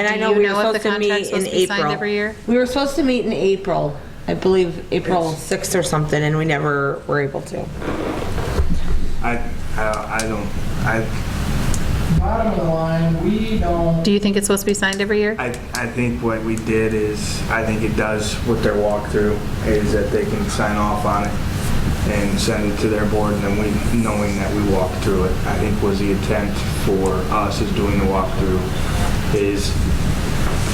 And I Do know you we were know if the supposed to meet contract's in supposed to be signed April. every year? We were supposed to meet in April, I believe, April 6th or something, and we never were able to. I, I, I don't, I, Bottom of the line, we don't, Do you think it's supposed to be signed every year? I, I think what we did is, I think it does with their walkthrough, is that they can sign off on it and send it to their board, and then we, knowing that we walked through it, I think was the intent for us is doing the walkthrough, is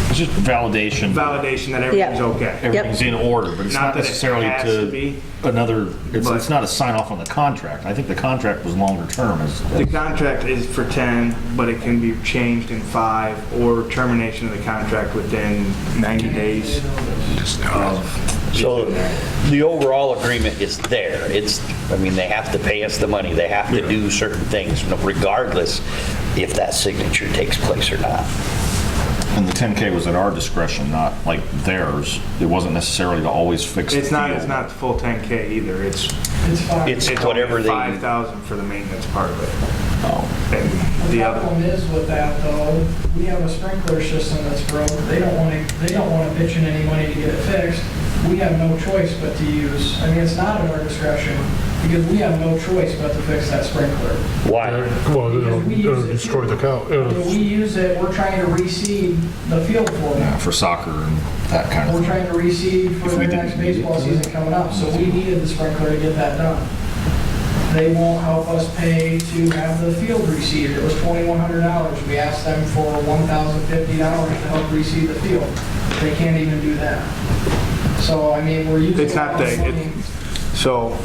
It's just validation. validation that everything's Yeah. okay. Everything's in order, but it's Not not that it necessarily has to to be, another, it's, but- it's not a sign off on the contract. I think the contract was longer term as, The contract is for 10, but it can be changed in five, or termination of the contract within 90 days of So the overall agreement is there. It's, I mean, they have to pay us the money. They have to do certain things regardless if that signature takes place or not. and the 10K was at our discretion, not like theirs. It wasn't necessarily to always fix the It's not, deal. it's not the full 10K either, it's, it's fine. It's it's whatever only they, 5,000 for the maintenance part of it. And The the other, problem is with that though, we have a sprinkler system that's broke, they don't want to, they don't want to pitch in any money to get it fixed. We have no choice but to use, I mean, it's not at our discretion, because we have no choice but to fix that sprinkler. why? Well, Because it'll, we use it'll it- destroy the cow. I mean, We It'll- use it, we're trying to reseed the field for Yeah, them. For soccer and that kind of We're thing. trying to reseed for If we their didn't next need it, baseball we- season coming up, so we needed the sprinkler to get that done. They won't help us pay to have the field reseeded. It was twenty-one hundred dollars. We asked them for one thousand fifty dollars to help reseed the field. They can't even do that. So, I mean, we're using. It's not they- it- money. so,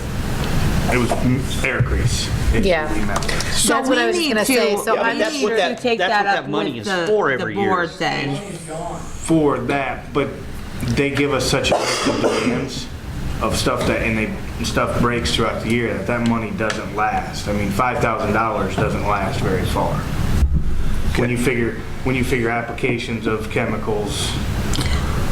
it was mm, air grease. is Yeah. what we meant. So That's what I we was need gonna say, to- so we I need that's what to that- take that's what up that money with is the- for the every board year. then. It's gone. For that, but they give us such a list of demands of stuff that, and they, stuff breaks throughout the year, that that money doesn't last. I mean, $5,000 doesn't last very far. When you figure, when you figure applications of chemicals,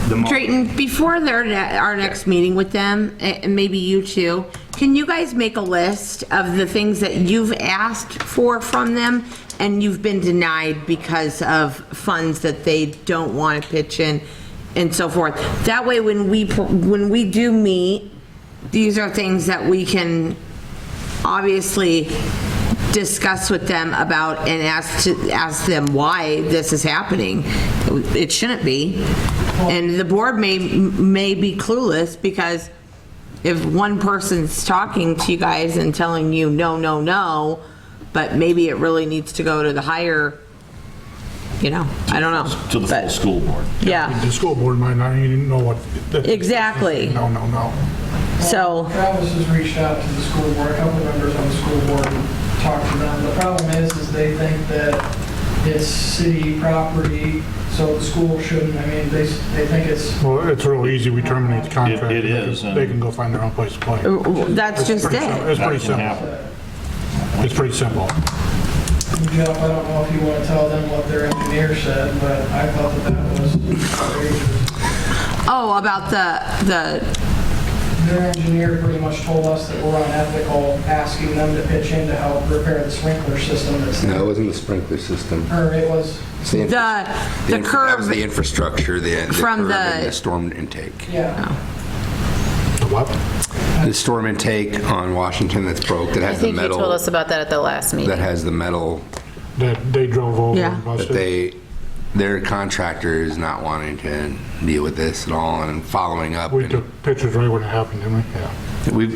the. mo- Drayton, before their, ne- our next meeting with them, a- and maybe you too, can you guys make a list of the things that you've asked for from them and you've been denied because of funds that they don't want to pitch in and so forth? That way, when we, pr- when we do meet, these are things that we can obviously discuss with them about and ask to, ask them why this is happening. It shouldn't be. And the board may, may be clueless because if one person's talking to you guys and telling you, no, no, no, but maybe it really needs to go to the higher, you know, I don't know. To the full But- school board. Yeah, The school board might not even know what. that- exactly. No, no, no. So. Travis has reached out to the school board, a couple members on the school board talked to them. The problem is, is they think that it's city property, so the school shouldn't, I mean, they, s- they think it's, Well, it's real easy. We terminate the contract. it and they is, can- They and- can go find their own place to play. That's Oh, just Pretty sim- it. It's pretty That can simple. happen. It's pretty simple. Jeff, I don't know if you want to tell them what their engineer said, but I thought that that was outrageous. Oh, about the, the, Their engineer pretty much told us that we're unethical, asking them to pitch in to help repair the sprinkler system that's, No, it wasn't the sprinkler system. or it was, It's the, infra- the, the inf- That was the curb, infrastructure, the, the From curb and the- the storm intake. yeah. The what? The storm intake on Washington that's broke, that I has the think you told metal, us about that at the last meeting. that has the metal, That they drove over Yeah. and that busted. they, their contractor is not wanting to deal with this at all and following up. We and took pictures right when it happened, didn't we? Yeah.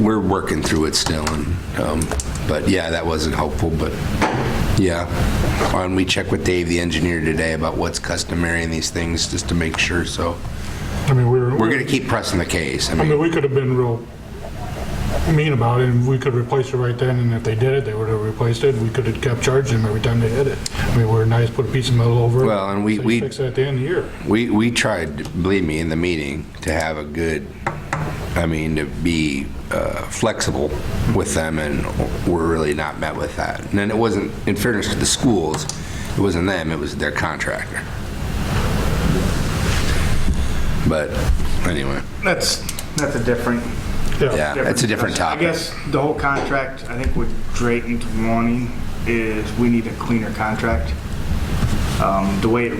We've, we're working through it still and, um, but yeah, that wasn't helpful, but yeah. And we checked with Dave, the engineer today, about what's customary in these things, just to make sure, so. I mean, we were. We're gonna keep pressing the case. I I mean, mean, we could have been real mean about it, and we could replace it right then, and if they did it, they would have replaced it, and we could have kept charging them every time they hit it. I mean, we're nice, put a piece of metal over it. Well, and we- say we- Fix it at the end of the year. we, we tried, believe me, in the meeting, to have a good, I mean, to be uh, flexible with them, and we're really not met with that. And then it wasn't, in fairness to the schools, it wasn't them, it was their contractor. But, anyway, That's, that's a different. yeah, it's a discussion. different topic. I guess the whole contract, I think what Drayton's wanting is we need a cleaner contract. Um, The way it